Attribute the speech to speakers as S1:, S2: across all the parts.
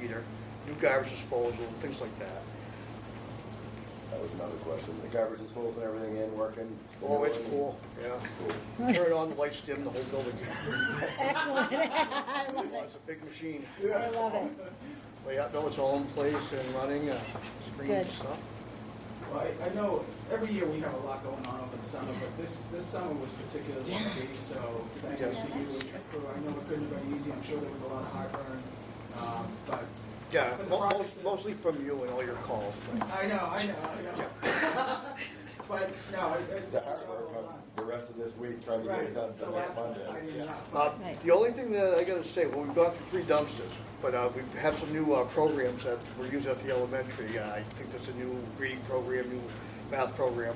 S1: meter, new garbage disposal, things like that.
S2: That was another question. The garbage disposal and everything in working?
S1: Oh, it's cool, yeah. Turn it on, the lights dim, the whole building.
S3: Excellent. I love it.
S1: It's a big machine.
S3: I love it.
S1: But yeah, no, it's all in place and running, uh, screens
S3: Good.
S1: and stuff.
S4: Well, I, I know every year we have a lot going on over the summer, but this, this summer was particularly lucky, so thank you to you and your crew. I know it couldn't have been easy, I'm sure there was a lot of heartburn, um, but.
S1: Yeah,
S4: for the
S1: mo-
S4: projects
S1: most-
S4: that-
S1: mostly from you and all your calls.
S4: I know, I know, I know. But, no, I, I.
S2: The hard work of the rest of this week trying to get it done
S4: Right, the
S2: for next
S4: last one, I
S2: Monday.
S4: did not.
S1: Uh,
S3: Right.
S1: The only thing that I gotta say, well, we've gone through three dumpsters, but uh, we have some new uh, programs that we're using at the elementary. Uh, I think that's a new reading program, new math program.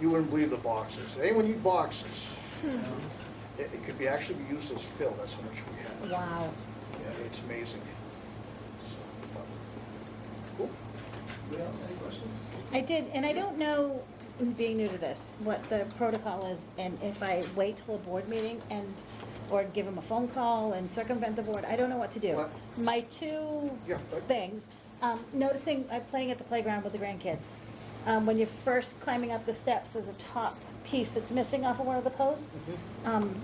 S1: You wouldn't believe the boxes. Anyone need boxes?
S3: Hmm.
S1: It it could be actually be used as fill, that's how much we have.
S3: Wow.
S1: Yeah, It's amazing. So, uh, Cool.
S4: What else, any questions?
S3: I did, and I don't know, being new to this, what the protocol is, and if I wait till a board meeting and, or give them a phone call and circumvent the board, I don't know what to do.
S1: What?
S3: My two
S1: Yeah, but-
S3: things, um, noticing, I'm playing at the playground with the grandkids. Um, when you're first climbing up the steps, there's a top piece that's missing off of one of the posts. Um,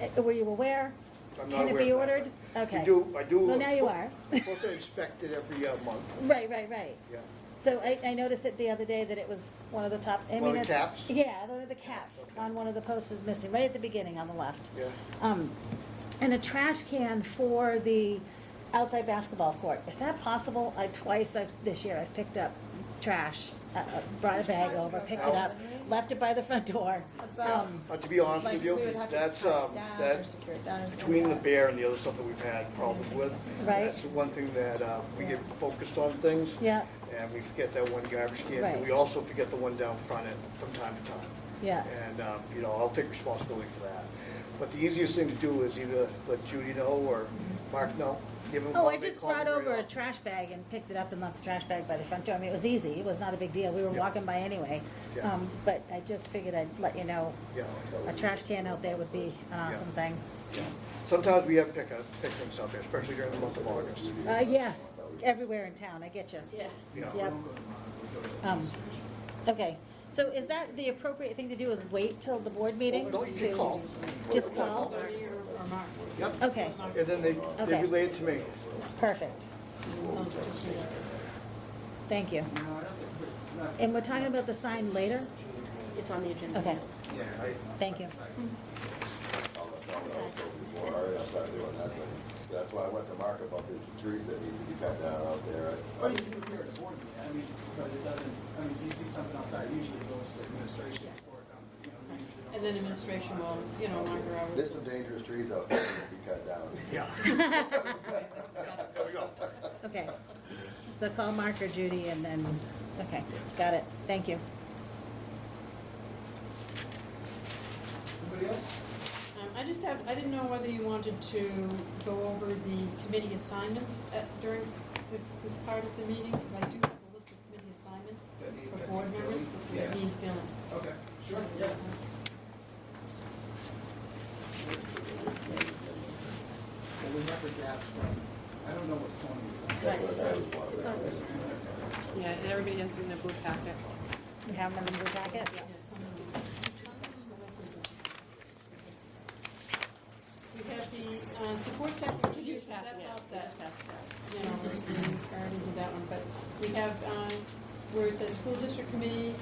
S3: eh, were you aware?
S1: Mm-hmm. I'm not
S3: Can it
S1: aware
S3: be
S1: of that,
S3: ordered?
S1: but
S3: Okay.
S1: You do, I do.
S3: Well, now you are.
S1: I'm Supposed to inspect it every uh, month,
S3: Right, right, right.
S1: yeah.
S3: So I, I noticed it the other day that it was one of the top. I mean,
S1: One of the
S3: it's,
S1: caps?
S3: Yeah, one of the caps on one of the posts is missing, right at the beginning on the left.
S1: Yeah.
S3: Um, and a trash can for the outside basketball court. Is that possible? I twice I've, this year I've picked up trash, uh, uh, brought a bag over, picked it up, left it by the front door.
S5: About-
S3: Um,
S1: But to be honest
S5: Like,
S1: with
S5: we
S1: you,
S5: would have to
S1: that's,
S5: tie it
S1: um,
S5: down or
S1: that's
S5: secure it down or something
S1: between the
S5: like that.
S1: bear and the other stuff that we've had problems with.
S3: Right.
S1: That's the one thing that, uh, we get
S5: Yeah.
S1: focused on things.
S3: Yeah.
S1: And we forget that one garbage can, and
S3: Right.
S1: we also forget the one down front end from time to time.
S3: Yeah.
S1: And, um, you know, I'll take responsibility for that. But the easiest thing to do is either let Judy know or Mark know. Give them a
S3: Oh,
S1: call,
S3: I
S1: they
S3: just
S1: call me
S3: brought
S1: right
S3: over a
S1: off.
S3: trash bag and picked it up and left the trash bag by the front door. I mean, it was easy. It was not a big deal. We were
S1: Yeah.
S3: walking by anyway.
S1: Yeah.
S3: Um, but I just figured I'd let you know
S1: Yeah.
S3: a trash can out there would be an awesome thing.
S1: Sometimes we have pick up, pick things up, there, especially during the month of August.
S3: Uh, yes, everywhere in town. I get you.
S5: Yeah.
S1: you know.
S3: Yep. Um, okay. So is that the appropriate thing to do? Is wait till the board meeting?
S1: No, Oh, you
S3: to-
S1: can call.
S3: Just call.
S1: Yep.
S3: Okay.
S1: And then they, they
S3: Okay.
S1: relay it to me.
S3: Perfect. Thank you.
S4: No, I don't think, we- no,
S3: And we're talking about the sign later.
S5: It's on the agenda.
S3: Okay.
S4: yeah, I,
S3: Thank you.
S2: All that stuff that I was told before, I already started doing that, but that's why I went to Mark about the trees that need to be cut down out there. I-
S4: But Oh, you can prepare it for me, I mean, but it doesn't, I mean, if you see something outside, it usually goes to administration before it comes, you know, we usually don't.
S5: And then administration will, you know, mark her hours.
S2: There's some dangerous trees out there that need to be cut down.
S1: Yeah. There we go.
S3: Okay. So call Mark or Judy and then, okay, got it. Thank you.
S4: Anybody else?
S6: Um, I just have, I didn't know whether you wanted to go over the committee assignments at, during th- this part of the meeting, because I do have a list of committee assignments
S4: That need-
S6: for
S4: that
S6: board
S4: need
S6: members,
S4: filling?
S6: but
S4: Yeah.
S6: that need filling.
S4: Okay, sure, yeah. Well, we have the gaps from, I don't know what Tony is on.
S2: That's what I was wondering.
S7: Yeah, and everybody has in their blue packet.
S3: You have them in your packet?
S6: Yeah, some of these. We have the, uh, support capital
S5: You
S6: review,
S5: just pass
S6: that's
S5: it
S6: all
S5: out. You
S6: set.
S5: just pass it out.
S6: you know, we already did that one, but we have, uh, where it says school district committee,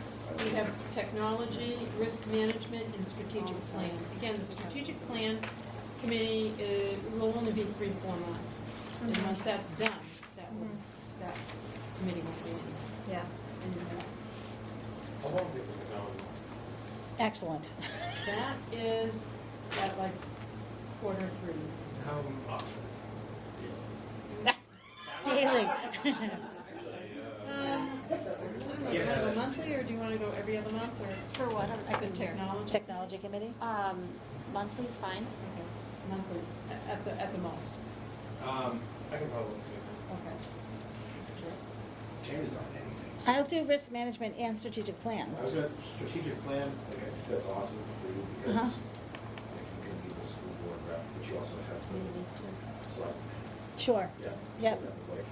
S6: we have technology, risk management, and strategic plan. Again, the strategic plan committee, uh, will only be three, four months. And once that's done, that will, that committee will be in.
S5: Yeah.
S6: And
S3: Excellent.
S6: That is at like quarter three.
S8: How often?
S3: Daily.
S6: Do you want to go monthly, or do you want to go every other month, or
S5: For what?
S6: at the technology?
S3: Technology committee?
S5: Um, monthly's fine.
S6: Okay, Monthly, at- at the, at the most,
S8: Um, I can probably see
S6: okay.
S9: James on anything.
S3: I'll do risk management and strategic plan.
S9: I was gonna, strategic plan, like, I think that's awesome for you because like, you can be the school board rep, but you also have the select
S10: Sure.
S2: Yeah.
S10: Yep.
S2: So that would like-